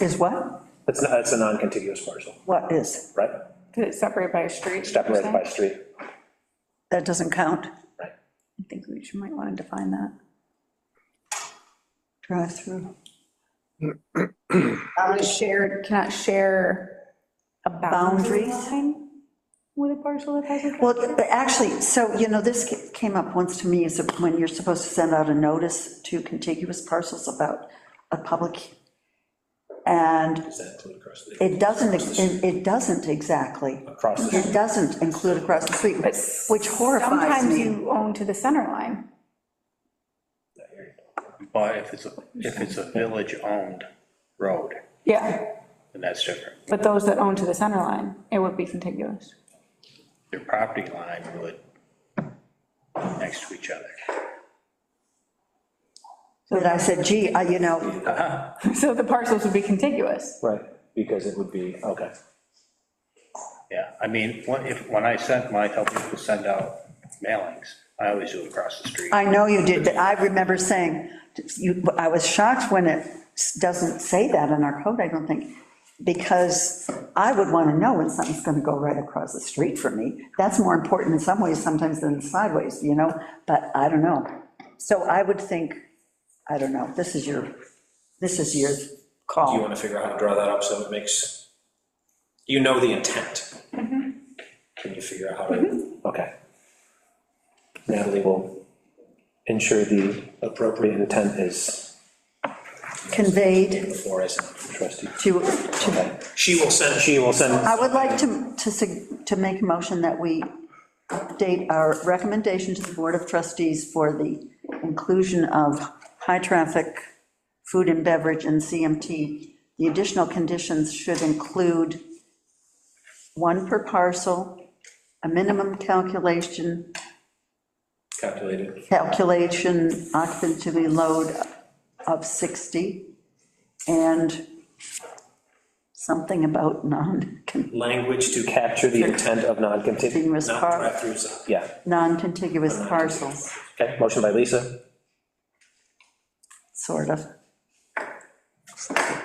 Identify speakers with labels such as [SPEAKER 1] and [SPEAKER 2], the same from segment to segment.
[SPEAKER 1] Is what?
[SPEAKER 2] It's, not- it's a non-contiguous parcel,
[SPEAKER 1] What is?
[SPEAKER 2] right?
[SPEAKER 3] Did it separate by a street?
[SPEAKER 2] Separated by street,
[SPEAKER 1] That doesn't count.
[SPEAKER 2] right?
[SPEAKER 1] I think we should, might want to define that. Drive-through.
[SPEAKER 3] Cannot share, cannot share a boundary
[SPEAKER 1] Boundary.
[SPEAKER 3] line with a parcel that has a
[SPEAKER 1] Well, but actually, so, you know, this ca- came up once to me, is when you're supposed to send out a notice to contiguous parcels about a public, and
[SPEAKER 2] Does that include across the,
[SPEAKER 1] it doesn't, ex- it it doesn't exactly,
[SPEAKER 2] across the,
[SPEAKER 1] it doesn't include across the street, which horrifies
[SPEAKER 3] Sometimes
[SPEAKER 1] me.
[SPEAKER 3] you own to the center line.
[SPEAKER 4] But if it's, a if it's a village-owned road,
[SPEAKER 3] Yeah,
[SPEAKER 4] then that's different.
[SPEAKER 3] but those that own to the center line, it would be contiguous.
[SPEAKER 4] Their property line would next to each other.
[SPEAKER 1] But I said, gee, I- you know,
[SPEAKER 3] So the parcels would be contiguous.
[SPEAKER 2] right, because it would be, okay.
[SPEAKER 4] Yeah, I mean, when, if, when I sent my, help people send out mailings, I always do it across the street.
[SPEAKER 1] I know you did, but I remember saying, you- I was shocked when it doesn't say that in our code, I don't think, because I would want to know when something's going to go right across the street from me. That's more important in some ways sometimes than sideways, you know, but I don't know. So I would think, I don't know, this is your, this is your
[SPEAKER 5] Do you
[SPEAKER 1] call.
[SPEAKER 5] want to figure out how to draw that up so it makes, you know the intent?
[SPEAKER 1] Mm-hmm.
[SPEAKER 5] Can you figure out how to?
[SPEAKER 2] Okay. Natalie will ensure the appropriate intent is
[SPEAKER 1] Conveyed
[SPEAKER 5] Before I send.
[SPEAKER 2] trustee.
[SPEAKER 1] to, to,
[SPEAKER 5] She will send. She will send.
[SPEAKER 1] I would like to, to, sug- to make a motion that we update our recommendation to the Board of Trustees for the inclusion of high-traffic food and beverage in CMT. The additional conditions should include one per parcel, a minimum calculation,
[SPEAKER 5] Calculated.
[SPEAKER 1] calculation occupancy load of 60, and something about non-continuous
[SPEAKER 5] Language to capture
[SPEAKER 2] Capture the intent of non-contiguous,
[SPEAKER 5] not
[SPEAKER 1] parcel.
[SPEAKER 5] drive-throughs.
[SPEAKER 2] yeah.
[SPEAKER 1] non-contiguous parcels,
[SPEAKER 2] Okay, motion by Lisa,
[SPEAKER 1] sort of.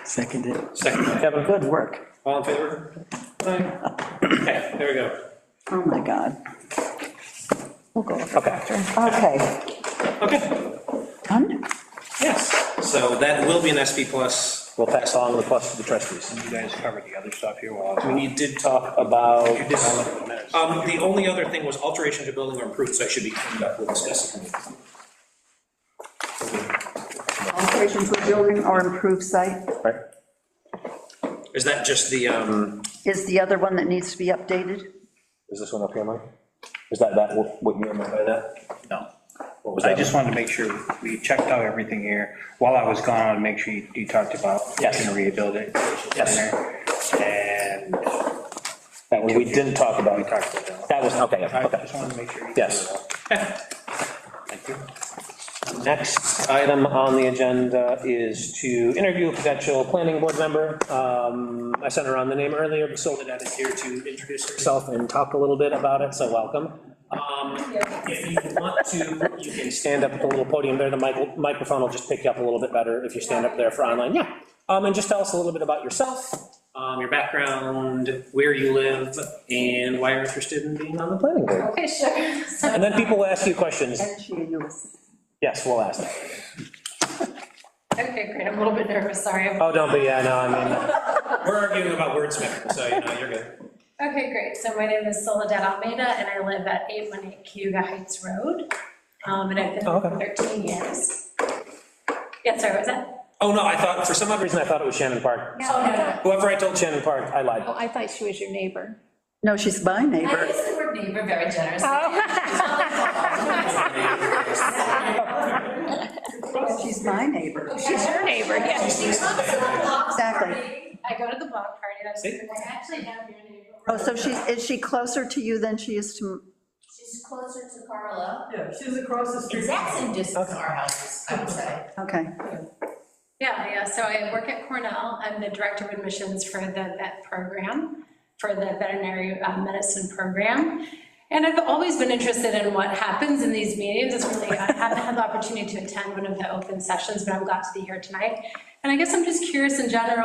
[SPEAKER 1] Seconded.
[SPEAKER 5] Second by Kevin.
[SPEAKER 1] Good work.
[SPEAKER 5] All in favor? Aye. Okay, there we go.
[SPEAKER 1] Oh, my God.
[SPEAKER 3] We'll go over
[SPEAKER 2] okay.
[SPEAKER 1] Okay,
[SPEAKER 5] Okay,
[SPEAKER 1] done?
[SPEAKER 5] yes. So that will be an SP plus.
[SPEAKER 2] We'll pass along the plus to the trustees.
[SPEAKER 4] You guys covered the other stuff here while I was.
[SPEAKER 5] We did talk about.
[SPEAKER 4] I'll look at the minutes.
[SPEAKER 5] Um, the only other thing was alteration to building or improvements that should be cleaned up, we'll discuss it.
[SPEAKER 1] Alteration to a building or improved site
[SPEAKER 2] Right.
[SPEAKER 5] Is that just the, um,
[SPEAKER 1] is the other one that needs to be updated.
[SPEAKER 2] Is this one up here, Mike? Is that, that, what what you meant by that?
[SPEAKER 4] No.
[SPEAKER 2] What was
[SPEAKER 4] I
[SPEAKER 2] that?
[SPEAKER 4] just wanted to make sure we checked out everything here. While I was gone, I wanted to make sure you you talked about.
[SPEAKER 2] Yes.
[SPEAKER 4] And rebuild it.
[SPEAKER 2] Yes.
[SPEAKER 4] And
[SPEAKER 2] That one we didn't talk about.
[SPEAKER 4] we talked about that.
[SPEAKER 2] That was, okay, yeah,
[SPEAKER 4] I
[SPEAKER 2] okay.
[SPEAKER 4] just wanted to make sure. you
[SPEAKER 2] Yes.
[SPEAKER 4] covered that.
[SPEAKER 2] Next item on the agenda is to interview a potential planning board member. Um, I sent around the name earlier, but Soledad is here to introduce herself and talk a little bit about it, so welcome. Um, If you want to, you can stand up at the little podium there, the mic- microphone will just pick you up a little bit better if you stand up there for online, yeah. Um, And just tell us a little bit about yourself,
[SPEAKER 5] um, your background, where you live, and why you're interested in being on the planning board?
[SPEAKER 6] Okay, sure. So,
[SPEAKER 2] and then people will ask you questions.
[SPEAKER 1] And she, you was-
[SPEAKER 2] Yes, we'll ask that.
[SPEAKER 6] okay, great, I'm a little bit nervous, sorry. I'm-
[SPEAKER 2] Oh, don't be, yeah, no, I mean, uh,
[SPEAKER 5] We're arguing about wordsmithing, so you know, you're good.
[SPEAKER 6] Okay, great, so my name is Soledad Almeida, and I live at 818 Cayuga Heights Road, Um, and I've been
[SPEAKER 2] Oh,
[SPEAKER 6] there for 13 years. Yeah, sorry, what was that?
[SPEAKER 5] Oh, no, I thought, for some
[SPEAKER 2] the
[SPEAKER 5] odd reason,
[SPEAKER 2] reason I thought it was Shannon Park.
[SPEAKER 6] Oh, no, no.
[SPEAKER 2] Whoever I told Shannon Park, I lied.
[SPEAKER 3] I thought she was your neighbor.
[SPEAKER 1] No, she's my
[SPEAKER 6] I
[SPEAKER 1] neighbor.
[SPEAKER 6] use the word neighbor very generously.
[SPEAKER 1] She's my neighbor.
[SPEAKER 6] She's your neighbor, yeah.
[SPEAKER 1] Exactly.
[SPEAKER 6] I go to the block party, and I was
[SPEAKER 5] See?
[SPEAKER 6] like, I actually am your neighbor.
[SPEAKER 1] Oh, so she, is she closer to you than she is to,
[SPEAKER 6] She's closer to Carla.
[SPEAKER 7] Yeah, she's across the street.
[SPEAKER 6] Exact same distance to our houses, I would say.
[SPEAKER 1] okay.
[SPEAKER 6] Yeah, yeah, so I work at Cornell, I'm the Director of Admissions for the vet program, for the veterinary uh, medicine program. And I've always been interested in what happens in these meetings, it's really, I haven't had the opportunity to attend one of the open sessions, but I'm glad to be here tonight. And I guess I'm just curious in general.